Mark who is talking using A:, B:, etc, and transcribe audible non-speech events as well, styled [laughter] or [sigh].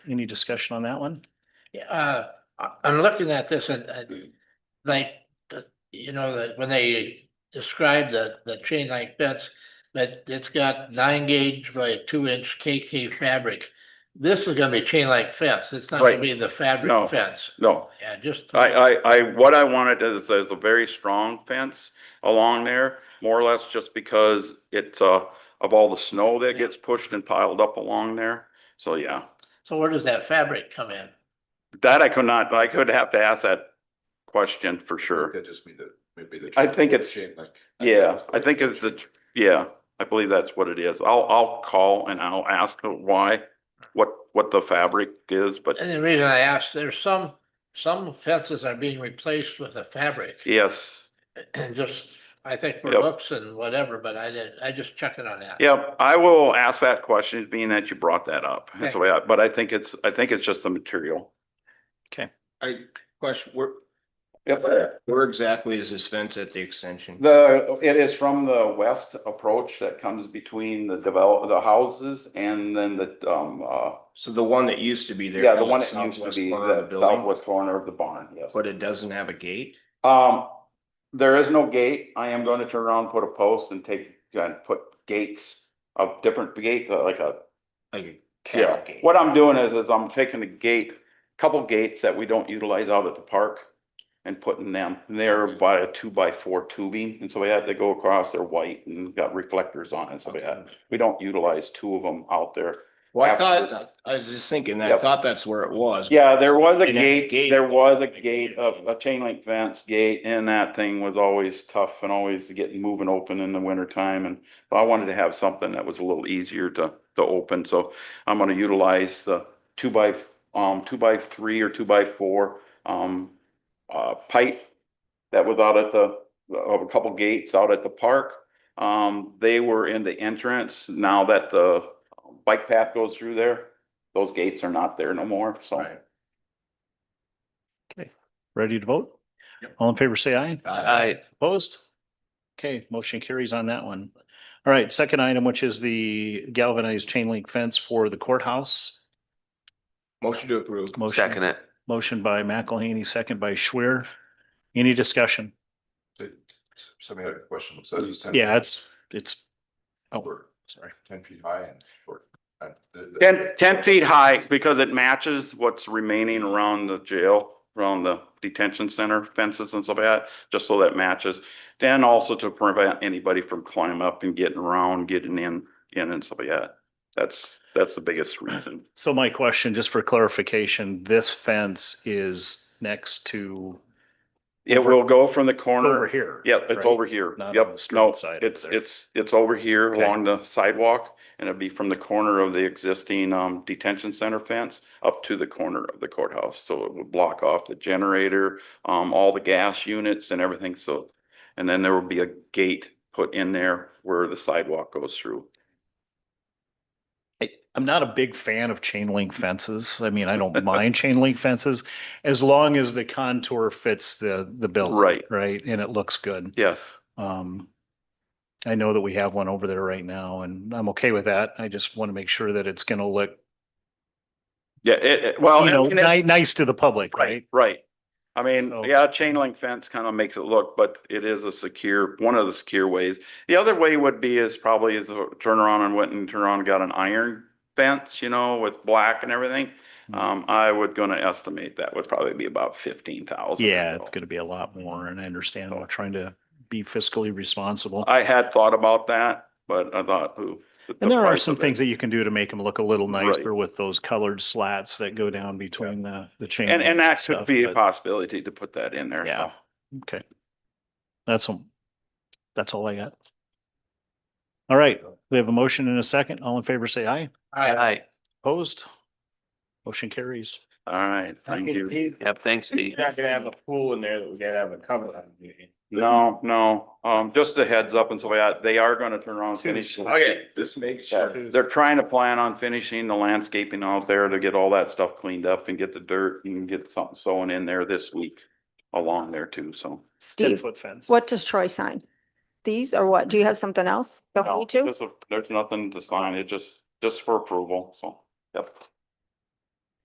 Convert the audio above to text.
A: Any discussion on that one?
B: Yeah, uh, I, I'm looking at this and, and like, the- you know, that when they describe the, the chain link fence, but it's got nine gauge by two inch KK fabric. This is gonna be chain link fence. It's not gonna
C: Right.
B: be the
C: No.
B: fabric fence.
C: No,
B: Yeah, just.
C: I, I, I, what I wanted is, is a very strong fence along there, more or less just because it's, uh, of all the snow that gets pushed and piled up along there. So, yeah,
B: So where does that fabric come in?
C: that I could not, I could have to ask that question for sure.
D: That just mean that maybe the.
C: I think it's-
D: Chain link.
C: Yeah, I think it's the, yeah, I believe that's what it is. I'll, I'll call and I'll ask why, what, what the fabric is, but
B: And the reason I asked, there's some, some fences are being replaced with a fabric.
C: yes.
B: And just, I think for
C: Yep.
B: looks and whatever, but I did, I just checking on that.
C: Yep, I will ask that question, being that you brought that up. That's the way I, but I think it's, I think it's just the material.
E: I question, where,
C: Yep.
E: where exactly is this fence at the extension?
C: The, it is from the west approach that comes between the develop, the houses and then the, um, uh,
E: So the one that used to be there.
C: yeah, the one that
E: southwest
C: used to be
E: corner of
C: the
E: the building,
C: southwest corner of the barn, yes.
E: But it doesn't have a gate?
C: Um, there is no gate. I am going to turn around, put a post and take, and put gates of different gate, uh, like a
E: Like a cattle
C: Yeah,
E: gate?
C: what I'm doing is, is I'm taking a gate, couple gates that we don't utilize out at the park and putting them there by a two by four tubing, and so we had to go across, they're white and got reflectors on it, so we had, we don't utilize two of them out there.
E: Well, I
C: after-
E: thought, I was just thinking, that. I
C: Yep.
E: thought that's where it was.
C: Yeah, there was a
E: And that
C: gate,
E: gate-
C: there was a gate of a chain link fence gate and that thing was always tough and always getting moving open in the winter time and but I wanted to have something that was a little easier to to open, so I'm gonna utilize the two by um two by three or two by four um uh pipe that was out at the of a couple gates out at the park. Um, they were in the entrance. Now that the bike path goes through there, those gates are not there no more, so.
E: Right.
A: Ready to vote? All in favor, say aye.
E: Aye.
A: Opposed? Okay, motion carries on that one. All right, second item, which is the galvanized chain link fence for the courthouse.
E: Motion to approve.
A: Motion-
F: Second it.
A: Motion by McElhaney, second by Schwer. Any discussion?
D: Somebody had a question, so it's ten.
A: Yeah, it's, it's, oh,
D: short,
A: sorry.
D: Ten feet high and short. And the- the-
C: Ten, ten feet high because it matches what's remaining around the jail, around the detention center fences and stuff like that, just so that matches. And also to prevent anybody from climbing up and getting around, getting in, in and stuff like that. That's, that's the biggest reason.
A: So my question, just for clarification, this fence is next to
C: It will go from the
A: over
C: corner.
A: here.
C: Yep, it's
A: right?
C: over here.
A: Not on
C: Yep,
A: the street
C: no,
A: side
C: it's,
A: over there.
C: it's, it's over here
A: Okay.
C: along the sidewalk and it'd be from the corner of the existing um detention center fence up to the corner of the courthouse. So it would block off the generator, um, all the gas units and everything. So, and then there will be a gate put in there where the sidewalk goes through.
A: I, I'm not a big fan of chain link fences. I mean, I
C: [laughs]
A: don't mind chain link fences as long as the contour fits the, the building.
C: Right.
A: Right, and it looks good.
C: Yes,
A: Um, I know that we have one over there right now and I'm okay with that. I just want to make sure that it's gonna look,
C: yeah, it, it- well.
A: you know,
C: Oh, and- and it-
A: ni- nice to the public,
C: Right,
A: right?
C: right. I mean,
A: So-
C: yeah, chain link fence kind of makes it look, but it is a secure, one of the secure ways. The other way would be is probably is to turn around and went and turn around and got an iron fence, you know, with black and everything.
A: Mhm.
C: Um, I would gonna estimate that would probably be about fifteen thousand.
A: Yeah, it's gonna be a lot more and I understand we're trying to be fiscally responsible.
C: Oh. I had thought about that, but I thought, ooh. the-
A: And
C: the
A: there are
C: price
A: some
C: of it.
A: things that you can do to make them look a little
C: Right.
A: nicer with those colored slats that go down between the, the chain.
C: And, and that
A: links
C: could
A: stuff,
C: be a
A: but-
C: possibility to put that in there.
A: Yeah.
C: so.
A: Okay. That's, all- that's all I got. All right, we have a motion and a second. All in favor, say aye.
B: All right.
F: Aye.
A: Opposed? Motion carries.
C: All right, thank you.
F: Yep, thanks, Steve.
E: You're not gonna have a pool in there that we gotta have a cover on. do you?
C: No, no, um, just a heads up and so yeah, they are gonna turn around and finish.
D: Okay, this makes
C: Yeah,
D: sure.
C: They're trying to plan on finishing the landscaping out there to get all that stuff cleaned up and get the dirt and get something sown in there this week along there too, so.
A: Ten
G: Steve,
A: foot fence.
G: what does Troy sign? These or what? Do you have something else?
C: No,
G: behind you?
C: there's a- There's nothing to sign, it just, just for approval, so, yep.